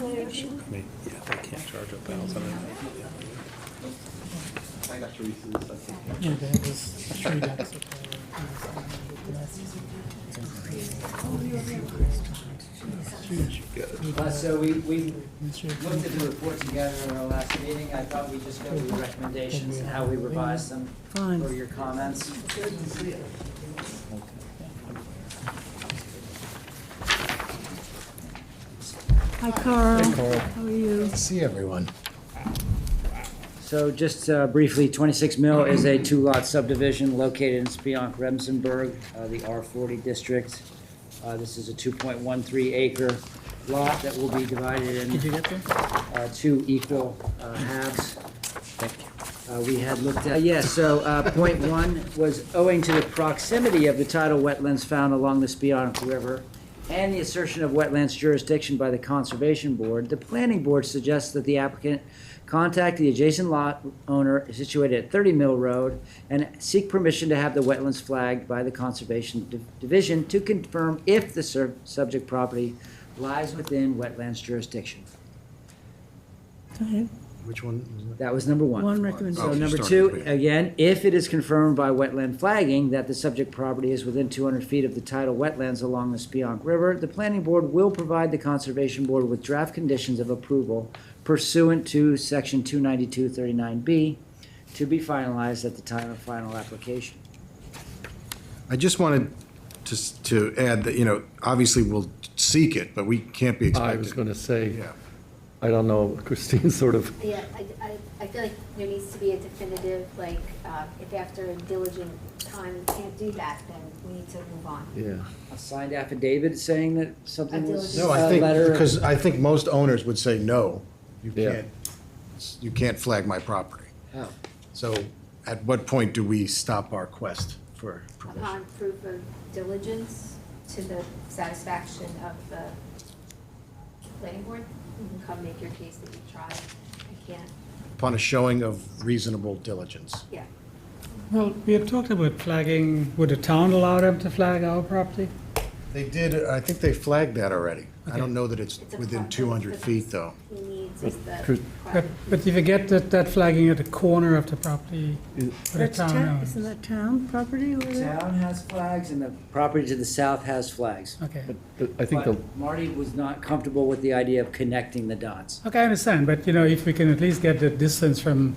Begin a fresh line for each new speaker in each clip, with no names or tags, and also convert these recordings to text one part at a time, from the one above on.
I mean, yeah, they can't charge a thousand.
I got Teresa's, I think.
Yeah, that was a trade up.
Uh, So we, we
Mr.
looked at the report together in our last meeting. I thought we'd just go through the recommendations and how we revised them
Fine.
for your comments.
Hi Carl. How are you?
See everyone.
So just uh, briefly, 26 Mill is a two-lot subdivision located in Spionk, Remsenburg, uh, the R40 district. Uh, This is a 2.13 acre lot that will be divided in
get there?
uh, two equal uh, halves. Uh, We had looked at, yeah, so uh, point one was owing to the proximity of the tidal wetlands found along the Spionk River and the assertion of wetlands jurisdiction by the Conservation Board, the Planning Board suggests that the applicant contact the adjacent lot owner situated at 30 Mill Road and seek permission to have the wetlands flagged by the Conservation Div- Division to confirm if the sur- subject property lies within wetlands jurisdiction.
Go ahead.
Which one? is
That was number
One
So
recommendation.
number two, again, if it is confirmed by wetland flagging that the subject property is within two hundred feet of the tidal wetlands along the Spionk River, the planning board will provide the conservation board with draft conditions of approval pursuant to section two ninety-two thirty-nine B to be finalized at the time of final application.
it? I just wanted to, s- to add that, you know, obviously we'll seek it, but we can't be
I was
expected.
gonna say,
Yeah.
I don't know, Christine sort of,
Yeah, I, I, I feel like there needs to be a definitive, like, uh, if after diligent time we can't do that, then we need to move on.
yeah.
A signed affidavit saying that something was,
No,
No,
uh,
I think,
letter.
because I think most owners would say, no, you
Yeah.
can't, you can't flag my property.
Oh.
So at what point do we stop our quest for permission?
Upon proof of diligence to the satisfaction of the planning board, you can come make your case that you tried. I can't,
Upon a showing of reasonable diligence.
yeah.
Well, we had talked about flagging, would the town allow them to flag our property?
They did, I think they flagged that already. I don't know that it's
It's a
within
process.
two hundred feet, though.
He needs is the.
Chris-
But, but if you get that, that flagging at the corner of the property, for the
That's town,
town
isn't
owns.
that town property over
The
there?
Town has flags and the property to the south has flags.
Okay,
But I think the,
But Marty was not comfortable with the idea of connecting the dots.
okay, I understand, but you know, if we can at least get the distance from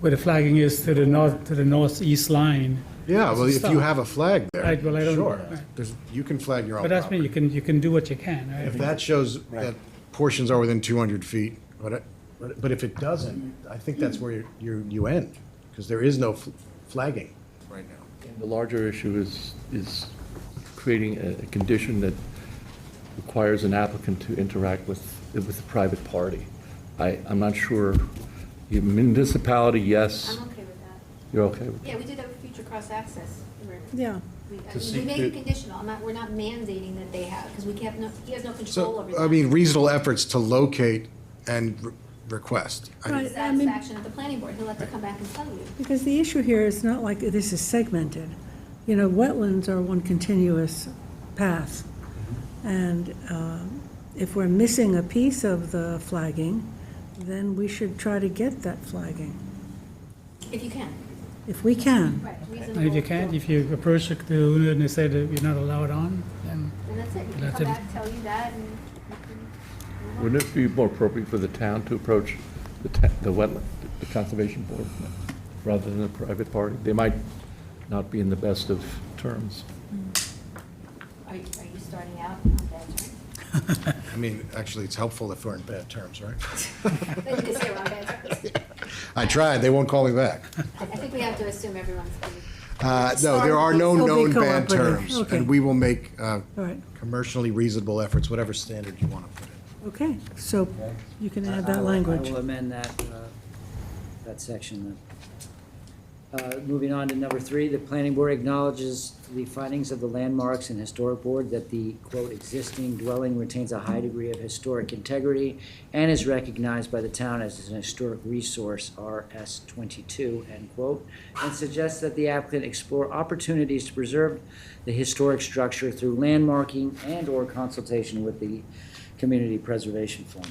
where the flagging is to the north, to the northeast line.
Yeah, well, if you
Stop.
have a flag there,
Right, well, I don't-
sure.
right.
There's, you can flag your own
But that's me, you
property.
can, you can do what you can, right?
If that shows that portions are within 200 feet, but, it- but but if it doesn't, I think that's where you- you, you end, because there is no fl- flagging right now.
the larger issue is, is creating a a condition that requires an applicant to interact with, with a private party. I, I'm not sure, municipality, yes,
I'm okay with that.
you're okay with
Yeah, we did that with future cross-access. We're-
Yeah,
We, I
To
mean, we
seek
make it
the-
conditional, I'm not, we're not mandating that they have, because we can't, no, he has no control
So, uh,
over that.
I mean, reasonable efforts to locate and re- request. I-
Right. I mean-
Satisfaction of the planning board, he'll have to come back and tell you.
because the issue here is not like this is segmented. You know, wetlands are one continuous path.
Mm-hmm.
And um, if we're missing a piece of the flagging, then we should try to get that flagging,
If you can,
if we can.
right,
And if you
reasonable.
can't, if you approach the owner and they say that you're not allowed on, then
And that's it, you can
That's
come
it.
back, tell you that, and you can
it. Wouldn't it be more appropriate for the town to approach the, ta- the wetland, the conservation board, rather than a private party? They might not be in the best of terms.
Are you, are you starting out on bad terms?
I mean, actually, it's helpful if we're in bad terms, right?
But you can say we're on bad terms.
I tried, they won't call me back.
I I think we have to assume everyone's going
Uh, No, there are no
Sorry, they'll
known
be
bad
cooperative.
terms,
Okay.
and we will make uh,
All right,
commercially reasonable efforts, whatever standard you want to put in.
okay, so you can add
I- I
that
will-
language.
I will amend that, uh, that section then. Uh, Moving on to number three, the planning board acknowledges the findings of the landmarks and historic board that the, quote, "existing dwelling retains a high degree of historic integrity and is recognized by the town as an historic resource, RS twenty-two," end quote, and suggests that the applicant explore opportunities to preserve the historic structure through landmarking and/or consultation with the Community Preservation Fund.